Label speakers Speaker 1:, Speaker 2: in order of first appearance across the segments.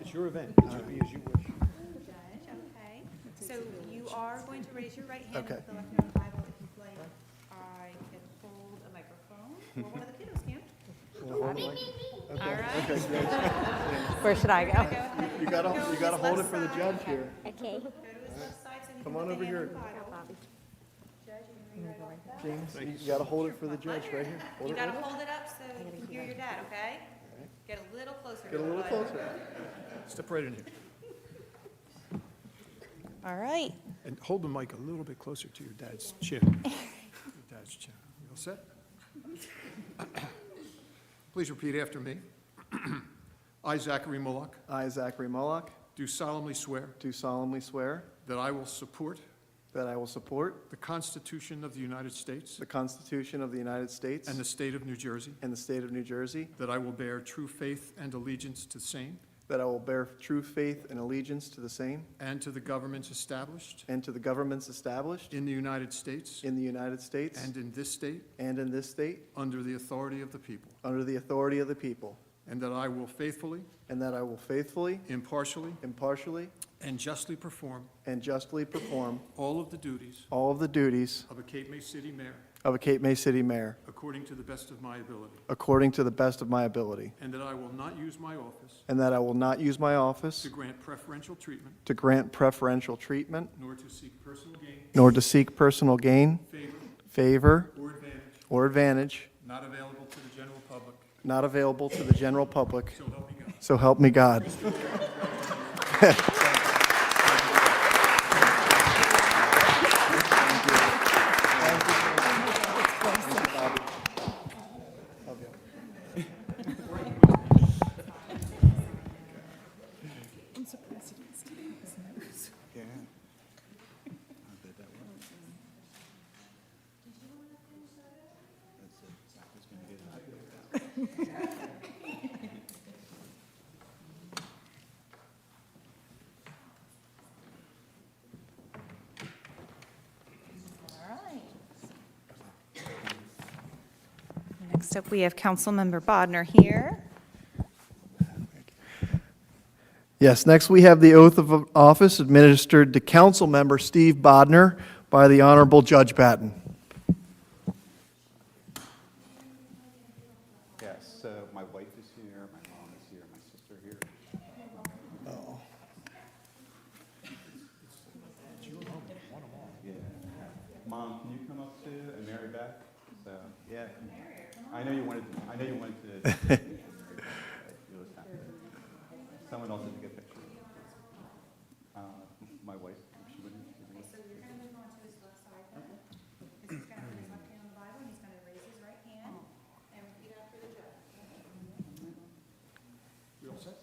Speaker 1: It's your event. It should be as you wish.
Speaker 2: Judge, okay. So you are going to raise your right hand
Speaker 1: Okay.
Speaker 2: with the left hand on the Bible. If you'd like, I can hold a microphone, or one of the kiddos can.
Speaker 1: Wanna hold the mic? Okay.
Speaker 2: All right.
Speaker 1: Okay, great.
Speaker 3: Where should I
Speaker 2: Go
Speaker 3: go?
Speaker 2: ahead.
Speaker 1: You gotta,
Speaker 2: Go to
Speaker 1: you gotta
Speaker 2: his
Speaker 1: hold it
Speaker 2: left
Speaker 1: for the
Speaker 2: side.
Speaker 1: judge here.
Speaker 4: Okay.
Speaker 2: Go to his left side so he can
Speaker 1: Come on
Speaker 2: put the
Speaker 1: over
Speaker 2: hand on
Speaker 1: here.
Speaker 2: the Bible. Judge, you can read right off the bat.
Speaker 1: James, you gotta hold it for the judge right here. Hold
Speaker 2: You
Speaker 1: it
Speaker 2: gotta
Speaker 1: right here.
Speaker 2: hold it up so you can hear your dad, okay? Get a little closer. to
Speaker 1: Get a
Speaker 2: the
Speaker 1: little
Speaker 2: Bible.
Speaker 1: closer.
Speaker 5: Step right in here.
Speaker 2: All right.
Speaker 5: And hold the mic a little bit closer to your dad's chin. Your dad's chin. You all set? Please repeat after me. I, Zachary Mullock,
Speaker 1: I, Zachary Mullock,
Speaker 5: do solemnly swear
Speaker 1: do solemnly swear
Speaker 5: that I will support
Speaker 1: that I will support
Speaker 5: the Constitution of the United States
Speaker 1: the Constitution of the United States
Speaker 5: and the state of New Jersey,
Speaker 1: and the state of New Jersey,
Speaker 5: that I will bear true faith and allegiance to the same
Speaker 1: that I will bear true faith and allegiance to the same
Speaker 5: and to the governments established
Speaker 1: and to the governments established
Speaker 5: in the United States
Speaker 1: in the United States
Speaker 5: and in this state
Speaker 1: and in this state,
Speaker 5: under the authority of the people,
Speaker 1: under the authority of the people,
Speaker 5: and that I will faithfully,
Speaker 1: and that I will faithfully,
Speaker 5: impartially,
Speaker 1: impartially,
Speaker 5: and justly perform
Speaker 1: and justly perform
Speaker 5: all of the duties
Speaker 1: all of the duties
Speaker 5: of a Cape May City mayor
Speaker 1: of a Cape May City mayor
Speaker 5: according to the best of my ability,
Speaker 1: according to the best of my ability,
Speaker 5: and that I will not use my office
Speaker 1: and that I will not use my office
Speaker 5: to grant preferential treatment
Speaker 1: to grant preferential treatment,
Speaker 5: nor to seek personal gain,
Speaker 1: nor to seek personal gain,
Speaker 5: favor,
Speaker 1: favor,
Speaker 5: or advantage
Speaker 1: or advantage
Speaker 5: not available to the general public,
Speaker 1: not available to the general public.
Speaker 5: so help me God.
Speaker 1: So help me God.
Speaker 3: I'm surprised he didn't stick his nose.
Speaker 2: All right. Next up, we have Councilmember Bodnar here.
Speaker 1: Yes, next we have the oath of office administered to council member Steve Bodnar by the Honorable Judge Batten.
Speaker 6: Yes, so my wife is here, my mom is here, my sister here. Yeah. Mom, can you come up too, and Mary Beth? So, yeah. I know you wanted, I know you wanted to. You'll just have to- Someone else didn't get a picture. Uh, My wife, she wouldn't. she wouldn't.
Speaker 2: So you're going to move on to his left side then. Because he's going to put his left hand on the Bible, and he's going to raise his right hand and repeat after the judge.
Speaker 5: We all set?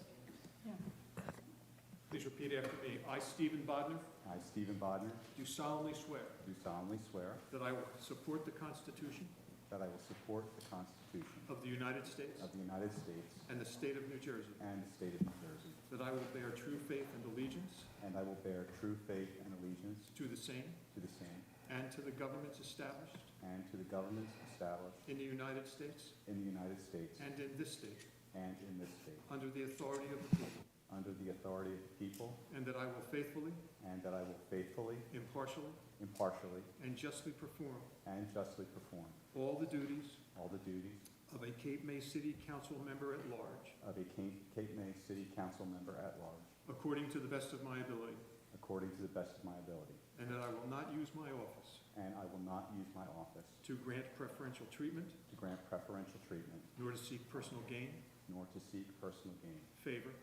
Speaker 5: Please repeat after me. I, Stephen Bodnar,
Speaker 6: I, Stephen Bodnar,
Speaker 5: do solemnly swear
Speaker 6: do solemnly swear
Speaker 5: that I will support the Constitution
Speaker 6: that I will support the Constitution
Speaker 5: of the United States
Speaker 6: of the United States
Speaker 5: and the state of New Jersey,
Speaker 6: and the state of New Jersey,
Speaker 5: that I will bear true faith and allegiance
Speaker 6: and I will bear true faith and allegiance
Speaker 5: to the same
Speaker 6: to the same
Speaker 5: and to the governments established
Speaker 6: and to the governments established
Speaker 5: in the United States
Speaker 6: in the United States
Speaker 5: and in this state,
Speaker 6: and in this state,
Speaker 5: under the authority of the people,
Speaker 6: under the authority of the people,
Speaker 5: and that I will faithfully,
Speaker 6: and that I will faithfully,
Speaker 5: impartially,
Speaker 6: impartially,
Speaker 5: and justly perform
Speaker 6: and justly perform
Speaker 5: all the duties
Speaker 6: all the duties
Speaker 5: of a Cape May City Council member at large,
Speaker 6: of a Cape Cape May City Council member at large,
Speaker 5: according to the best of my ability,
Speaker 6: according to the best of my ability,
Speaker 5: and that I will not use my office
Speaker 6: and I will not use my office
Speaker 5: to grant preferential treatment,
Speaker 6: to grant preferential treatment,
Speaker 5: nor to seek personal gain,
Speaker 6: nor to seek personal gain,
Speaker 5: favor,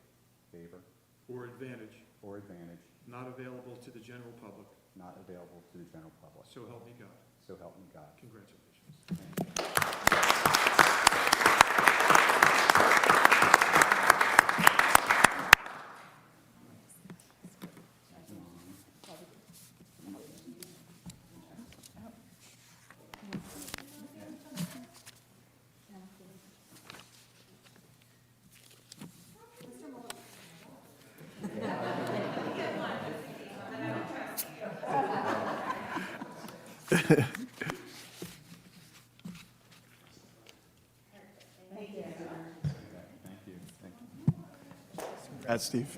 Speaker 6: favor,
Speaker 5: or advantage
Speaker 6: or advantage
Speaker 5: not available to the general public.
Speaker 6: not available to the general public.
Speaker 5: So help me God.
Speaker 6: So help me God.
Speaker 5: Congratulations.
Speaker 6: Thank you. Thank you.
Speaker 1: That's Steve.